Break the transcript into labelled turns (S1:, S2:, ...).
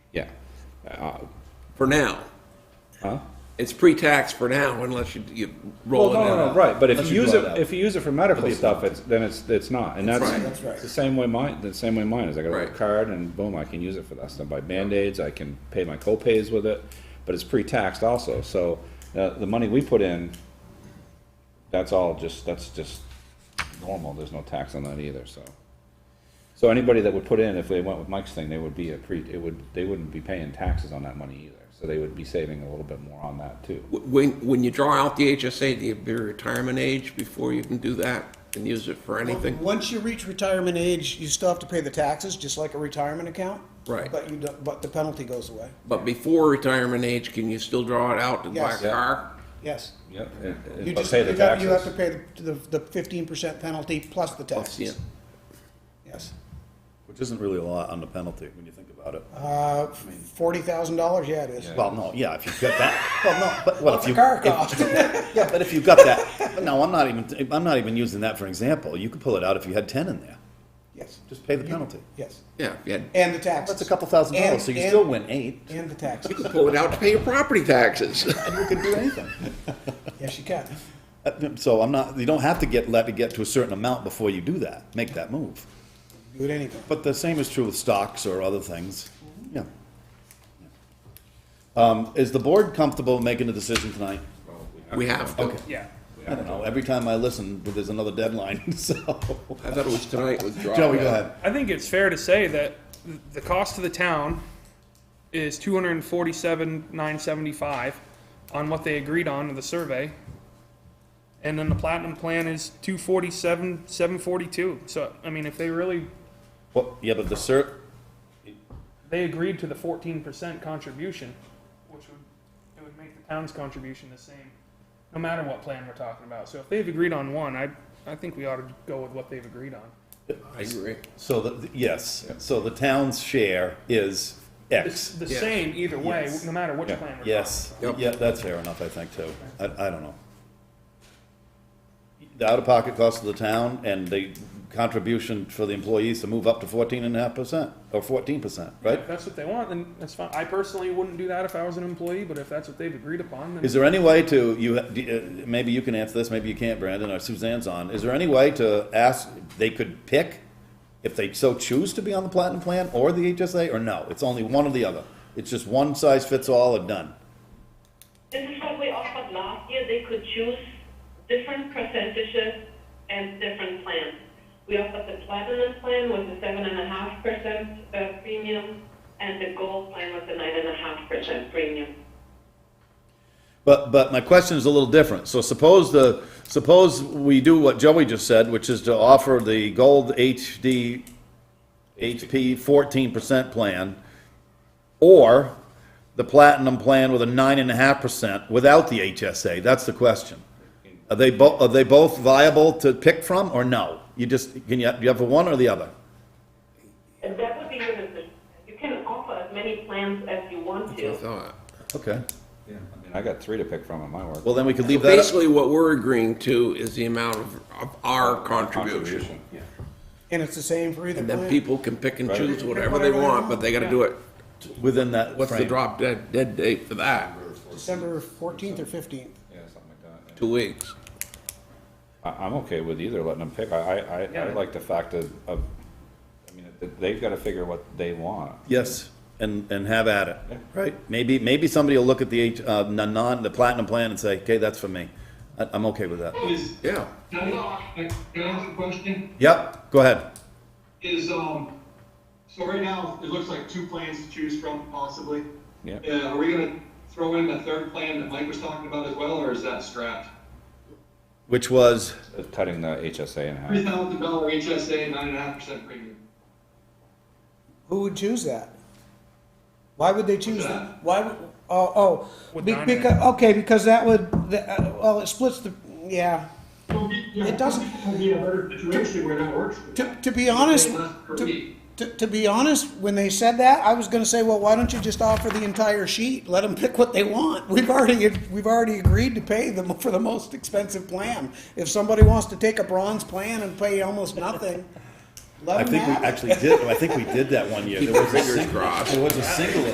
S1: Uh,
S2: for now.
S1: Huh?
S2: It's pre-tax for now unless you, you
S1: Well,
S2: roll it
S1: no, no, no,
S2: out.
S1: right, but if
S3: Unless
S1: you
S3: you
S1: use
S3: draw it
S1: it,
S3: out.
S1: if you use it for medical stuff, it's, then it's, it's not, and that's,
S2: right.
S3: That's right.
S1: it's the same way mine, the same way mine is, I got a little
S2: Right.
S1: card and boom, I can use it for that stuff, buy Band-Aids, I can pay my co-pays with it, but it's pre-taxed also, so, uh, the money we put in, that's all just, that's just normal, there's no tax on that either, so. So anybody that would put in, if they went with Mike's thing, they would be a pre, it would, they wouldn't be paying taxes on that money either, so they would be saving a little bit more on that too.
S2: Wh- When, when you draw out the HSA, do you have your retirement age before you can do that and use it for anything?
S4: Once you reach retirement age, you still have to pay the taxes, just like a retirement account.
S2: Right.
S4: But you, don't- but the penalty goes away.
S2: But before retirement age, can you still draw it out to buy a
S4: Yes.
S1: Yeah.
S2: car?
S4: Yes.
S1: Yep, and,
S4: You
S1: and but
S4: just,
S1: pay
S4: you
S1: the
S4: have, you have to
S1: taxes,
S4: pay the, the fifteen percent penalty plus the
S2: Plus, yeah.
S4: taxes. Yes.
S3: Which isn't really a lot on the penalty when you think about it.
S4: Uh, forty thousand dollars, yeah, it is.
S3: Well, no, yeah, if you've got that,
S4: Well, no,
S3: but well,
S4: what's
S3: if
S4: the
S3: you.
S4: car
S3: if-
S4: cost?
S3: Yeah, but if you've got that, but no, I'm not even, I'm not even using that for example. You could pull it out if you had ten in there.
S4: Yes,
S3: Just pay the penalty.
S4: yes.
S2: Yeah, if you had-
S4: And the taxes.
S3: That's a couple thousand dollars,
S4: And-
S3: so you
S4: and-
S3: still win eight.
S4: And the taxes.
S2: you pull it out to pay your property taxes.
S3: You could do anything.
S4: Yes, you can.
S3: Uh, So I'm not, you don't have to get, let it get to a certain amount before you do that, make that move.
S4: Do it anything.
S3: But the same is true with stocks or other things. Yeah. Um, is the board comfortable making a decision tonight?
S2: We have to.
S3: Yeah. I don't know, every time I listen, there's another deadline, so.
S2: I thought it was tonight with draw.
S3: Joey, go ahead.
S5: I think it's fair to say that th- the cost to the town is two hundred and forty-seven, nine seventy-five on what they agreed on in the survey. And then the platinum plan is two forty-seven, seven forty-two. So, I mean, if they really,
S3: Well, yeah, but the cert,
S5: they agreed to the fourteen percent contribution, which would, it would make the town's contribution the same, no matter what plan we're talking about. So if they've agreed on one, I, I think we ought to go with what they've agreed on.
S2: I agree.
S3: so the, yes, so the town's share is X.
S5: It's the same either way,
S3: Yes.
S5: no matter which
S1: Yeah.
S5: plan we're talking about.
S3: Yes,
S2: Yep.
S3: yeah, that's fair enough, I think, too. I, I don't know. The out-of-pocket cost of the town and the contribution for the employees to move up to fourteen and a half percent, or fourteen percent, right?
S5: If that's what they want, then that's fine. I personally wouldn't do that if I was an employee, but if that's what they've agreed upon, then
S3: Is there any way to, you, uh, maybe you can answer this, maybe you can't, Brandon, or Suzanne's on, is there any way to ask, they could pick if they so choose to be on the platinum plan or the HSA, or no? It's only one or the other. It's just one size fits all or done.
S6: This is what we offered last year, they could choose different percentages and different plans. We offered the platinum plan with a seven and a half percent uh, premium, and the gold plan with a nine and a half percent premium.
S3: But, but my question is a little different. So suppose the, suppose we do what Joey just said, which is to offer the gold HD, HP fourteen percent plan, or the platinum plan with a nine and a half percent without the HSA. That's the question. Are they both, are they both viable to pick from or no? You just, can you, you have for one or the other?
S6: And that would be your decision. You can offer as many plans as you want
S2: I
S6: to.
S2: thought.
S3: Okay.
S1: Yeah, I mean, I got three to pick from at my work.
S3: Well, then we could leave that. up-
S2: Basically, what we're agreeing to is the amount of, of our contribution.
S4: And it's the same for either
S2: And then
S4: plan.
S2: people can pick and choose
S4: Right.
S2: whatever they want, but they gotta do it.
S3: Within that
S2: What's the
S3: frame.
S2: drop dead, dead date for that?
S4: December fourteenth or fifteenth.
S1: Yeah, something like that.
S2: Two weeks.
S1: I, I'm okay with either letting them pick. I, I, I, I
S5: Yeah.
S1: like the fact of, of, I mean, th- they've gotta figure what they want.
S3: Yes, and, and have at it, right? Maybe, maybe somebody will look at the, H- uh, the non, the platinum plan and say, okay, that's for me. I, I'm okay with that.
S7: Is,
S2: Yeah.
S7: can I, can I ask a question?
S3: Yep, go ahead.
S7: Is, um, so right now, it looks like two plans to choose from possibly.
S1: Yeah.
S7: Uh, are we gonna throw in the third plan that Mike was talking about as well, or is that scrapped?
S3: Which was,
S1: Uh, Cutting the HSA in
S7: Three
S1: half.
S7: thousand dollar HSA, nine and a half percent premium.
S4: Who would choose that? Why would they choose
S7: What's
S4: that?
S7: that?
S4: Why, would- oh, oh,
S5: With
S4: Be-
S5: nine in it.
S4: because, okay, because that would, the- uh, well, it splits the, yeah. It
S7: It
S4: doesn't-
S7: It'll be a better situation where that works. for
S4: To,
S7: them.
S4: to be honest,
S7: Pay less per
S4: to,
S7: week.
S4: to, to be honest, when they said that, I was gonna say, well, why don't you just offer the entire sheet? Let them pick what they want. We've already, we've already agreed to pay them for the most expensive plan. If somebody wants to take a bronze plan and pay almost nothing,
S3: I
S4: let
S3: think we
S4: them have it.
S3: actually did, I think we did that one year.
S2: Keep
S3: There
S2: your
S3: was a
S2: fingers
S3: single,
S2: crossed.
S3: there was a single